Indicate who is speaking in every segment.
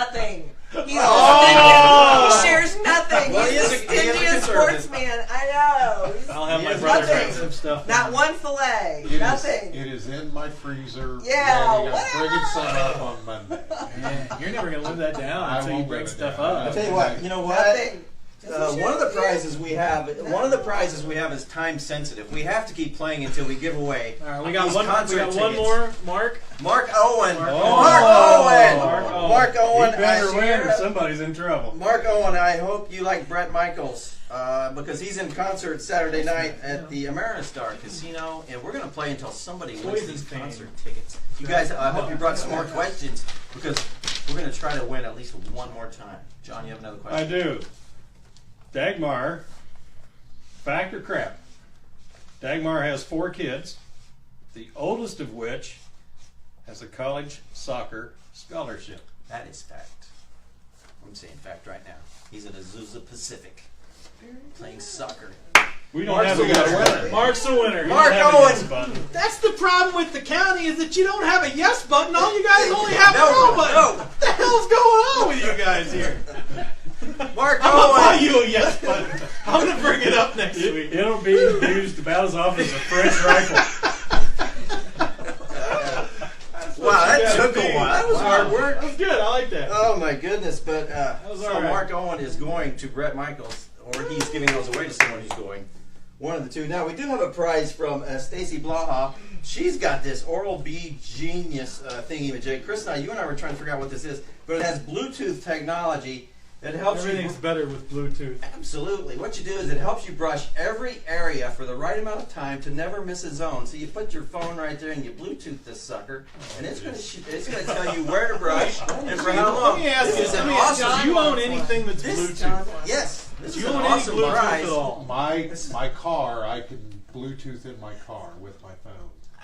Speaker 1: nothing. He's
Speaker 2: Oh!
Speaker 1: he shares nothing.
Speaker 3: Well,
Speaker 1: he's
Speaker 3: he
Speaker 1: the
Speaker 3: is a- he is a
Speaker 1: stingiest
Speaker 3: conservative. Oh.
Speaker 1: sportsman. I know. He's-
Speaker 2: I'll have
Speaker 3: He
Speaker 2: my
Speaker 3: is
Speaker 2: brother
Speaker 1: nothing.
Speaker 2: bring some stuff.
Speaker 1: not one fillet.
Speaker 4: It is-
Speaker 1: nothing.
Speaker 4: it is in my freezer.
Speaker 1: Yeah,
Speaker 4: ready. I'm bringing
Speaker 1: whatever.
Speaker 4: some up on Monday.
Speaker 2: Man, you're never gonna live that down
Speaker 4: I
Speaker 2: until you
Speaker 4: won't
Speaker 2: bring
Speaker 4: live it
Speaker 2: stuff
Speaker 4: down.
Speaker 2: up.
Speaker 4: I
Speaker 3: I'll tell you what, you know what?
Speaker 1: nothing. Just
Speaker 3: Uh,
Speaker 1: share
Speaker 3: one of the
Speaker 1: with you.
Speaker 3: prizes we have, one of the prizes we have is time sensitive. We have to keep playing until we give away.
Speaker 2: All right, we got
Speaker 3: these
Speaker 2: one. We
Speaker 3: concert
Speaker 2: got one
Speaker 3: tickets.
Speaker 2: more. Mark.
Speaker 3: Mark Owen.
Speaker 2: Mark
Speaker 3: Mark Owen.
Speaker 2: Owen. Mark
Speaker 3: Mark
Speaker 2: Owen.
Speaker 3: Owen.
Speaker 2: He
Speaker 3: I-
Speaker 2: better win, or somebody's in trouble.
Speaker 3: Mark Owen, I hope you like Brett Michaels uh, because he's in concert Saturday night at the Ameristar Casino, and we're going to play until somebody wins
Speaker 2: Poison
Speaker 3: these
Speaker 2: pain.
Speaker 3: concert tickets. You guys, I hope you brought some more questions because we're going to try to win at least one more time. John, you have another
Speaker 2: I
Speaker 3: question?
Speaker 2: do. Dagmar, fact or crap? Dagmar has four kids, the oldest of which has a college soccer scholarship.
Speaker 3: That is fact. I'm saying fact right now. He's at Azusa Pacific playing soccer.
Speaker 2: We don't
Speaker 4: Mark's
Speaker 2: have
Speaker 4: the
Speaker 2: a guess
Speaker 4: winner.
Speaker 2: button. Mark's the winner. You
Speaker 3: Mark
Speaker 2: don't have a
Speaker 3: Owen.
Speaker 2: guess button.
Speaker 5: That's the problem with the county is that you don't have a yes button. All you guys only have
Speaker 3: No,
Speaker 5: a no
Speaker 3: no.
Speaker 5: button. What the hell's going on with you guys here?
Speaker 3: Mark
Speaker 5: I'm gonna buy
Speaker 3: Owen!
Speaker 5: you a yes button. I'm gonna bring it up next
Speaker 2: It,
Speaker 5: week.
Speaker 2: it'll be used about as often as a French rifle.
Speaker 3: Wow, that
Speaker 5: gotta
Speaker 3: took
Speaker 5: be.
Speaker 3: a while. That was hard work.
Speaker 5: That was good. I like that.
Speaker 3: Oh my goodness! But uh,
Speaker 2: was
Speaker 3: so
Speaker 2: all right.
Speaker 3: Mark Owen is going to Brett Michaels, or he's giving those away to someone who's going. One of the two. Now we do have a prize from uh, Stacy Blaha. She's got this Oral B Genius uh, thingy majig. Chris and I, you and I were trying to figure out what this is, but it has Bluetooth technology that helps you.
Speaker 5: Everything's better with Bluetooth.
Speaker 3: Absolutely. What you do is it helps you brush every area for the right amount of time to never miss a zone. So you put your phone right there and you Bluetooth this sucker, and it's gonna sh- it's gonna tell you where to brush and for how long.
Speaker 5: Let me ask you.
Speaker 3: This is
Speaker 5: Let
Speaker 3: an
Speaker 5: me ask you.
Speaker 3: awesome.
Speaker 5: Do you own anything that's
Speaker 3: This
Speaker 5: Bluetooth?
Speaker 3: Yes, this
Speaker 5: Do
Speaker 3: is
Speaker 5: you
Speaker 3: an
Speaker 5: own
Speaker 3: awesome
Speaker 5: any Bluetooth
Speaker 3: prize.
Speaker 5: at all?
Speaker 4: My
Speaker 3: This is-
Speaker 4: my car, I can Bluetooth in my car with my phone.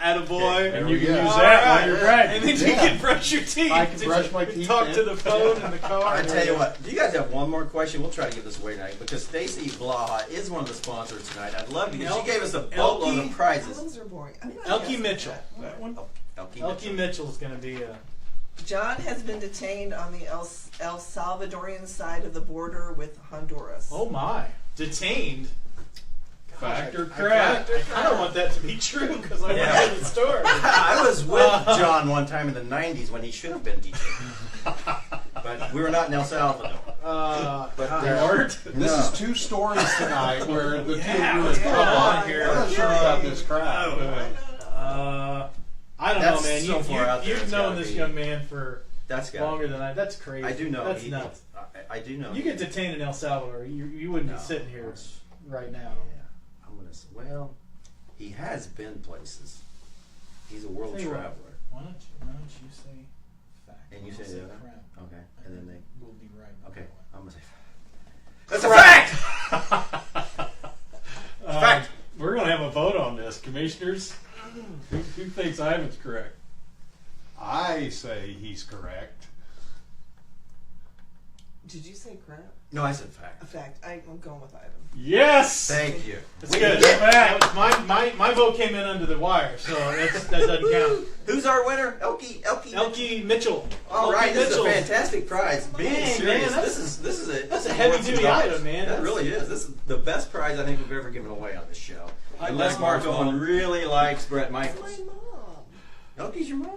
Speaker 5: Attaboy.
Speaker 2: And
Speaker 4: There
Speaker 2: you
Speaker 4: we
Speaker 2: can
Speaker 4: go.
Speaker 2: use
Speaker 5: All
Speaker 2: that
Speaker 5: right.
Speaker 2: while you're
Speaker 5: And
Speaker 2: bragging.
Speaker 5: then you
Speaker 4: Yeah.
Speaker 5: can brush your teeth.
Speaker 4: I can brush my teeth
Speaker 5: Talk
Speaker 4: and-
Speaker 5: to the phone in the car.
Speaker 3: I tell you what, do you guys have one more question? We'll try to give this away tonight because Stacy Blaha is one of the sponsors tonight. I'd love to get.
Speaker 5: Elke-
Speaker 3: She gave us a boatload
Speaker 5: Elke-
Speaker 3: of prizes.
Speaker 1: Those are boring. I mean, I
Speaker 5: Elkie
Speaker 1: guess-
Speaker 5: Mitchell. That one.
Speaker 3: Elke
Speaker 5: Elkie
Speaker 3: Mitchell.
Speaker 5: Mitchell's gonna be a.
Speaker 1: John has been detained on the El, El Salvadorian side of the border with Honduras.
Speaker 5: Oh my. Detained.
Speaker 2: Fact or crap?
Speaker 5: I kind of want that to be true because I
Speaker 3: Yeah.
Speaker 5: went to the store.
Speaker 3: I was with John one time in the '90s when he should have been detained, but we were not in El Salvador.
Speaker 5: Uh,
Speaker 3: But
Speaker 2: They
Speaker 3: uh,
Speaker 2: aren't.
Speaker 4: This
Speaker 3: No.
Speaker 4: is two stories tonight where the
Speaker 2: Yeah,
Speaker 4: two
Speaker 2: what's
Speaker 4: of you
Speaker 2: going
Speaker 4: are
Speaker 2: on
Speaker 4: I'm
Speaker 2: here?
Speaker 4: not sure about this crap.
Speaker 2: Oh.
Speaker 5: uh, I don't
Speaker 3: That's
Speaker 5: know, man.
Speaker 3: so
Speaker 5: you,
Speaker 3: far
Speaker 5: you,
Speaker 3: out there,
Speaker 5: You've
Speaker 3: it's
Speaker 5: known
Speaker 3: gotta
Speaker 5: this
Speaker 3: be-
Speaker 5: young man for
Speaker 3: that's got.
Speaker 5: longer than I. That's crazy.
Speaker 3: I do know.
Speaker 5: That's
Speaker 3: he-
Speaker 5: nuts.
Speaker 3: I, I do know.
Speaker 5: You
Speaker 3: he-
Speaker 5: get detained in El Salvador, you, you wouldn't
Speaker 3: No.
Speaker 5: be sitting here right now.
Speaker 3: Yeah, I'm gonna. s- Well, he has been places. He's a world
Speaker 5: Say what?
Speaker 3: traveler.
Speaker 5: Why don't you, why don't you say fact?
Speaker 3: And you
Speaker 5: I'll
Speaker 3: say the other?
Speaker 5: crap.
Speaker 3: Okay, and then they.
Speaker 5: We'll be right back.
Speaker 3: Okay, I'm gonna say. That's a fact. Fact.
Speaker 2: Uh, We're gonna have a vote on this, commissioners. Who, who thinks Ivan's correct?
Speaker 4: I say he's correct.
Speaker 1: Did you say crap?
Speaker 3: No, I said fact.
Speaker 1: In fact, I, I'm going with Ivan.
Speaker 2: Yes.
Speaker 3: Thank you.
Speaker 5: That's
Speaker 3: We
Speaker 5: good.
Speaker 3: did-
Speaker 5: That was- my, my, my vote came in under the wire, so that's, that doesn't count.
Speaker 3: Who's our winner? Elkie. Elkie.
Speaker 5: Elkie Mitchell.
Speaker 3: All
Speaker 5: Elkie
Speaker 3: right, this
Speaker 5: Mitchell.
Speaker 3: is a fantastic prize. Being
Speaker 5: man,
Speaker 3: serious,
Speaker 5: that's-
Speaker 3: this is this is a
Speaker 5: that's a
Speaker 3: this is
Speaker 5: heavy
Speaker 3: worth some
Speaker 5: duty
Speaker 3: dollars.
Speaker 5: item, man.
Speaker 3: That
Speaker 5: That's-
Speaker 3: really is. This is the best prize I think we've ever given away on this show.
Speaker 5: I
Speaker 3: Unless
Speaker 5: love
Speaker 3: Mark
Speaker 5: Mark Owen.
Speaker 3: Owen really likes Brett
Speaker 1: My
Speaker 3: Michaels.
Speaker 1: mom.
Speaker 3: Elkie's your mom?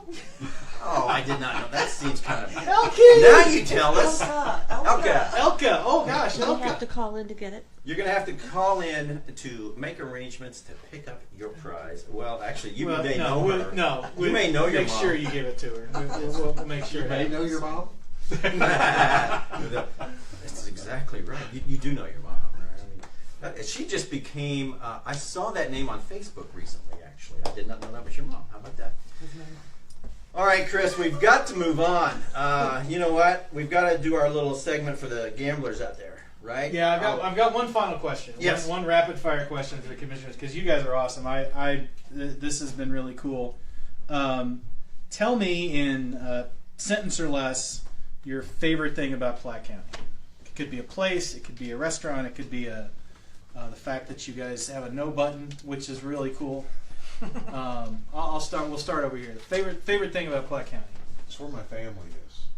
Speaker 3: oh, I did not know. That seems kind of.
Speaker 5: Elkie.
Speaker 3: Now you tell us.
Speaker 1: Elka. Elka.
Speaker 3: Elka,
Speaker 5: Elka. Oh gosh,
Speaker 6: Do we have
Speaker 5: Elka.
Speaker 6: to call in to get it?
Speaker 3: you're gonna have to call in to make arrangements to pick up your prize. Well, actually, you
Speaker 5: Well,
Speaker 3: may
Speaker 5: no,
Speaker 3: know
Speaker 5: we'll-
Speaker 3: her.
Speaker 5: no.
Speaker 3: You may know your
Speaker 5: Make
Speaker 3: mom.
Speaker 5: sure you give it to her. We'll, we'll, we'll make sure. it
Speaker 4: May know
Speaker 5: happens.
Speaker 4: your mom?
Speaker 3: That's exactly right. You, you do know your mom, right? I mean, that- she just became. Uh, I saw that name on Facebook recently. Actually, I did not know that was your mom. How about that? All right, Chris, we've got to move on. Uh, you know what? We've got to do our little segment for the gamblers out there, right?
Speaker 5: Yeah, I've got,
Speaker 3: Oh,
Speaker 5: I've got one final question. One-
Speaker 3: Yes.
Speaker 5: One, rapid fire question for the commissioners because you guys are awesome. I, I th- this has been really cool. Um, tell me in a sentence or less your favorite thing about Platte County. It could be a place. It could be a restaurant. It could be a uh, the fact that you guys have a no button, which is really cool. um, I'll, I'll start. We'll start over here. Favorite favorite thing about Platte County.
Speaker 4: It's where my family is.